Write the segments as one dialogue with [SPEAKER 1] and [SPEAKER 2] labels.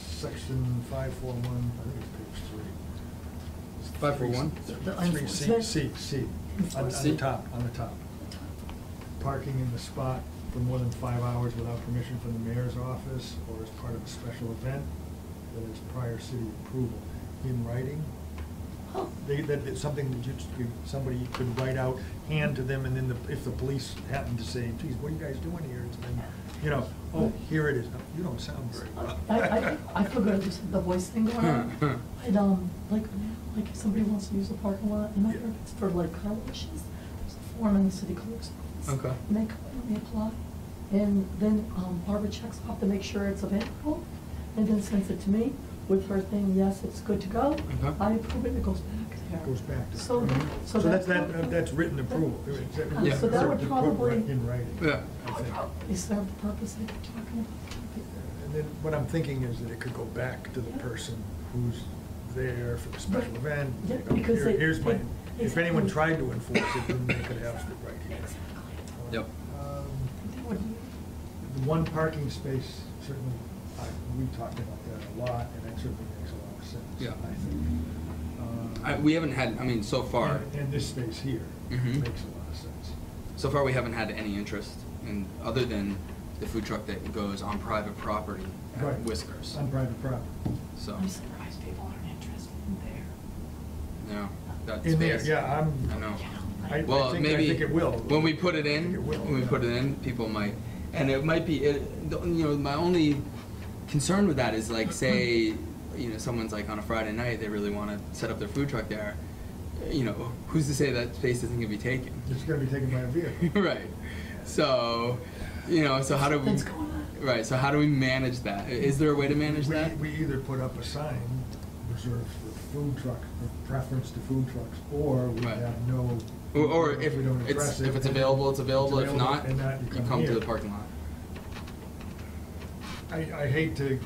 [SPEAKER 1] section five four one, I think it's page three.
[SPEAKER 2] Five four one?
[SPEAKER 1] Three, C, C, C, on, on the
[SPEAKER 2] C?
[SPEAKER 1] top, on the top. Parking in the spot for more than five hours without permission from the mayor's office or as part of a special event that is prior city approval in writing.
[SPEAKER 3] Oh,
[SPEAKER 1] They, that, that's something that you, you- somebody could write out, hand to them, and then the, if the police happen to say, geez, what are you guys doing here? It's been, you know, oh, here it is. You don't sound very well.
[SPEAKER 3] I, I, I forgot there's the voice thing going on. And, um, like, like if somebody wants to use the parking lot, and I
[SPEAKER 1] Yeah.
[SPEAKER 3] heard it's for like car washes, there's a form in the city clerk's office.
[SPEAKER 2] Okay.
[SPEAKER 3] And they come in, they apply, and then um, Barbara checks off to make sure it's available, and then sends it to me with her thing, yes, it's good to go.
[SPEAKER 2] Okay.
[SPEAKER 3] I approve it, it goes back there.
[SPEAKER 1] Goes back to-
[SPEAKER 3] So,
[SPEAKER 2] Mhm.
[SPEAKER 3] so
[SPEAKER 1] So
[SPEAKER 3] that's.
[SPEAKER 1] that's, that, uh, that's written approval.
[SPEAKER 3] Uh, So
[SPEAKER 2] Yeah.
[SPEAKER 3] that would
[SPEAKER 1] Written
[SPEAKER 3] probably.
[SPEAKER 1] approval In writing.
[SPEAKER 2] Yeah.
[SPEAKER 1] I think.
[SPEAKER 3] Is there a purpose that you're talking about?
[SPEAKER 1] And then what I'm thinking is that it could go back to the person who's there for the special
[SPEAKER 3] Right.
[SPEAKER 1] event. you
[SPEAKER 3] Yeah,
[SPEAKER 1] know,
[SPEAKER 3] because
[SPEAKER 1] here-
[SPEAKER 3] they-
[SPEAKER 1] Here's my,
[SPEAKER 3] they-
[SPEAKER 1] if anyone
[SPEAKER 3] exactly.
[SPEAKER 1] tried to enforce it, then they could have it right here.
[SPEAKER 3] Exactly.
[SPEAKER 2] Yep.
[SPEAKER 1] Um,
[SPEAKER 3] That would be-
[SPEAKER 1] The one parking space, certainly, I- we talked about that a lot, and that certainly makes a lot of sense,
[SPEAKER 2] Yeah.
[SPEAKER 1] I think. Uh,
[SPEAKER 2] I, we haven't had, I mean, so far,
[SPEAKER 1] and- And this space here makes a
[SPEAKER 2] Mhm.
[SPEAKER 1] lot of sense.
[SPEAKER 2] so far we haven't had any interest in, other than the food truck that goes on private property
[SPEAKER 1] Right.
[SPEAKER 2] at Uh, Whiskers.
[SPEAKER 1] On private property.
[SPEAKER 2] So,
[SPEAKER 3] I'm surprised people aren't interested in there.
[SPEAKER 2] no, that's.
[SPEAKER 1] In there,
[SPEAKER 2] space.
[SPEAKER 1] yeah, I'm.
[SPEAKER 2] I know.
[SPEAKER 3] Yeah,
[SPEAKER 1] I-
[SPEAKER 3] like-
[SPEAKER 2] Well,
[SPEAKER 1] think- I
[SPEAKER 2] maybe
[SPEAKER 1] think it will.
[SPEAKER 2] when we put it
[SPEAKER 1] I think
[SPEAKER 2] in,
[SPEAKER 1] it will,
[SPEAKER 2] when we
[SPEAKER 1] yeah.
[SPEAKER 2] put it in, people might, and it might be, it, the- you know, my only concern with that is like, say, you know, someone's like on a Friday night, they really want to set up their food truck there. You know, who's to say that space isn't gonna be taken?
[SPEAKER 1] It's gonna be taken by a vehicle.
[SPEAKER 2] right. So, you know, so how do we?
[SPEAKER 3] Something's going on.
[SPEAKER 2] Right. So how do we manage that? I- Is there a way to manage
[SPEAKER 1] We-
[SPEAKER 2] that?
[SPEAKER 1] We either put up a sign reserved for food truck, for preference to food trucks, or we
[SPEAKER 2] Right.
[SPEAKER 1] have no.
[SPEAKER 2] or, or if
[SPEAKER 1] we don't
[SPEAKER 2] it's
[SPEAKER 1] address it,
[SPEAKER 2] if it's
[SPEAKER 1] then
[SPEAKER 2] available, it's available. if not,
[SPEAKER 1] and that
[SPEAKER 2] you come to
[SPEAKER 1] here.
[SPEAKER 2] the parking lot.
[SPEAKER 1] I, I hate to,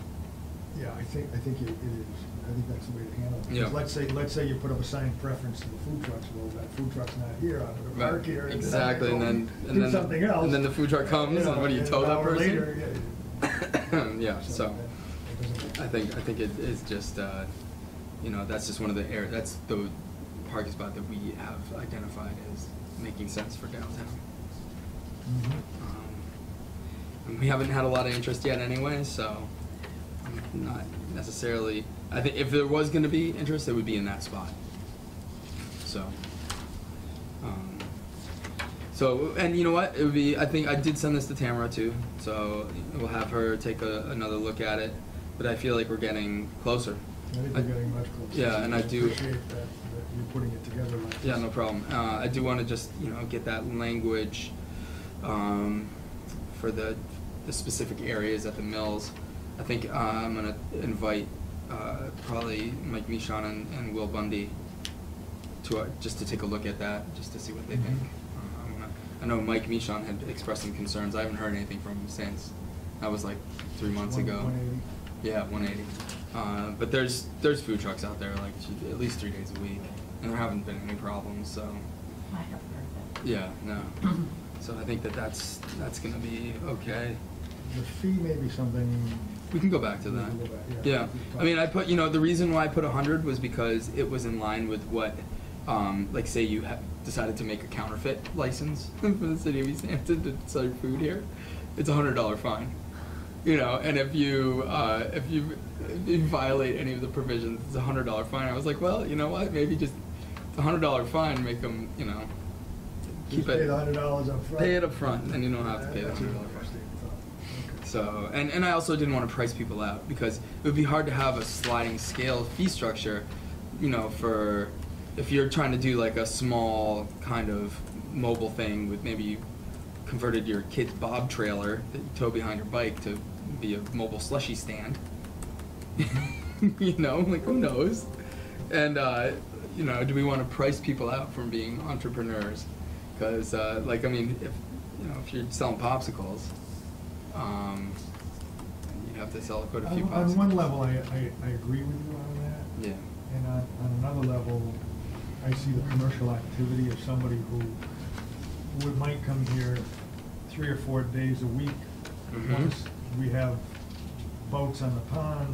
[SPEAKER 1] yeah, I think, I think it it is, I think that's the way to handle it. 'Cause
[SPEAKER 2] Yeah.
[SPEAKER 1] Let's say, let's say you put up a sign preference to the food trucks, well, that food truck's not here, I'm gonna
[SPEAKER 2] Right.
[SPEAKER 1] park here. and then I
[SPEAKER 2] Exactly, and
[SPEAKER 1] go
[SPEAKER 2] then and
[SPEAKER 1] do
[SPEAKER 2] then
[SPEAKER 1] something else.
[SPEAKER 2] and then the food truck comes,
[SPEAKER 1] You know,
[SPEAKER 2] and what do you
[SPEAKER 1] and
[SPEAKER 2] tell
[SPEAKER 1] an
[SPEAKER 2] that
[SPEAKER 1] hour
[SPEAKER 2] person?
[SPEAKER 1] later, yeah,
[SPEAKER 2] yeah, so
[SPEAKER 1] that- that doesn't make
[SPEAKER 2] I
[SPEAKER 1] sense.
[SPEAKER 2] think I think it is just uh, you know that's just one of the air that's the parking spot that we have identified as making sense for downtown.
[SPEAKER 1] Mhm.
[SPEAKER 2] Um, and we haven't had a lot of interest yet anyway, so I'm not necessarily. I think if there was going to be interest, it would be in that spot. So. Um, so, and you know what? It would be, I think I did send this to Tamara too, so we'll have her take a, another look at it. But I feel like we're getting closer.
[SPEAKER 1] I think we're getting much closer.
[SPEAKER 2] Yeah, and I do-
[SPEAKER 1] Appreciate that, that you're putting it together like this.
[SPEAKER 2] Yeah, no problem. Uh, I do want to just, you know, get that language um, for the, the specific areas at the mills. I think uh, I'm going to invite uh, probably Mike Michon and, and Will Bundy to, uh, just to take a look at that, just to see what they
[SPEAKER 1] Mhm.
[SPEAKER 2] think. Uh, I'm gonna- I know Mike Michon had expressed some concerns. I haven't heard anything from him since. That was like three months
[SPEAKER 1] One-
[SPEAKER 2] ago.
[SPEAKER 1] 180.
[SPEAKER 2] Yeah, 180. Uh, but there's there's food trucks out there like at least three days a week, and there haven't been any problems. So
[SPEAKER 3] I have heard
[SPEAKER 2] yeah, no.
[SPEAKER 3] that.
[SPEAKER 2] So I think that that's that's gonna be okay.
[SPEAKER 1] The fee may be something.
[SPEAKER 2] We can go back to
[SPEAKER 1] we
[SPEAKER 2] that.
[SPEAKER 1] can go back,
[SPEAKER 2] Yeah, I mean, I put you know the reason why I put 100 was because it was in line with what, um, like say you ha- decided to make a counterfeit license for the city of East Hampton to sell your food here, it's a hundred dollar fine. You know, and if you uh, if you if you violate any of the provisions, it's a hundred dollar fine. I was like, well, you know what? Maybe just it's a hundred dollar fine. Make them, you know, keep
[SPEAKER 1] Just pay
[SPEAKER 2] it.
[SPEAKER 1] the hundred dollars up front.
[SPEAKER 2] Pay it up front, then you don't have to pay the
[SPEAKER 1] That's a
[SPEAKER 2] $100 up front.
[SPEAKER 1] interesting thought. Okay.
[SPEAKER 2] So, and, and I also didn't want to price people out because it would be hard to have a sliding scale fee structure, you know, for if you're trying to do like a small kind of mobile thing with maybe you converted your kid's bob trailer that you tow behind your bike to be a mobile slushy stand. you know, like who knows? And, uh, you know, do we want to price people out from being entrepreneurs? Because, uh, like, I mean, if, you know, if you're selling popsicles, um, you'd have to sell quite a few
[SPEAKER 1] On
[SPEAKER 2] popsicles.
[SPEAKER 1] on one level, I, I, I agree with you on that.
[SPEAKER 2] Yeah.
[SPEAKER 1] And on, on another level, I see the commercial activity of somebody who would, might come here three or four days a week.
[SPEAKER 2] Mhm.
[SPEAKER 1] Once we have boats on the pond,